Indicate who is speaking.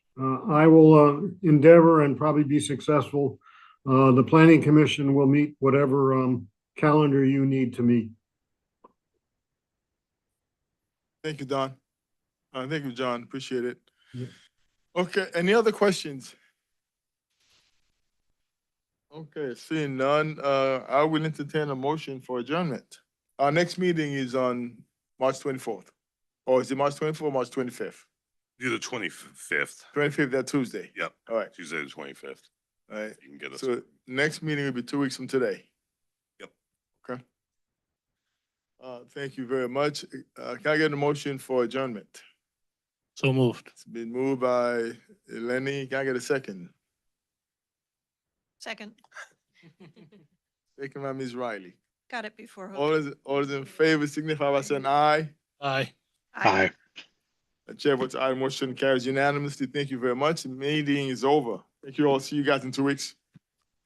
Speaker 1: I will uh, endeavor and probably be successful. Uh, The planning commission will meet whatever um, calendar you need to meet.
Speaker 2: Thank you, Don. Uh, thank you, John. Appreciate it.
Speaker 1: Yeah.
Speaker 2: Okay, any other questions? Okay, seeing none, uh, I will entertain a motion for adjournment. Our next meeting is on March twenty-fourth. Or is it March twenty-fourth, March twenty-fifth?
Speaker 3: Do the twenty-fifth,
Speaker 2: Twenty-fifth, that Tuesday.
Speaker 3: Yep.
Speaker 2: All right,
Speaker 3: Tuesday the twenty-fifth.
Speaker 2: all right.
Speaker 3: You can get us.
Speaker 2: So next meeting will be two weeks from today.
Speaker 3: Yep.
Speaker 2: Okay. Uh, thank you very much. Uh, can I get a motion for adjournment?
Speaker 4: So moved.
Speaker 2: It's been moved by Lenny. Can I get a second?
Speaker 5: Second.
Speaker 2: Second by Ms. Riley.
Speaker 5: Got it before. Hook.
Speaker 2: All those, all those in favor signify by saying aye.
Speaker 4: Aye.
Speaker 5: Aye.
Speaker 2: The chair votes aye, motion carries unanimously. Thank you very much. Meeting is over. Thank you all. See you guys in two weeks.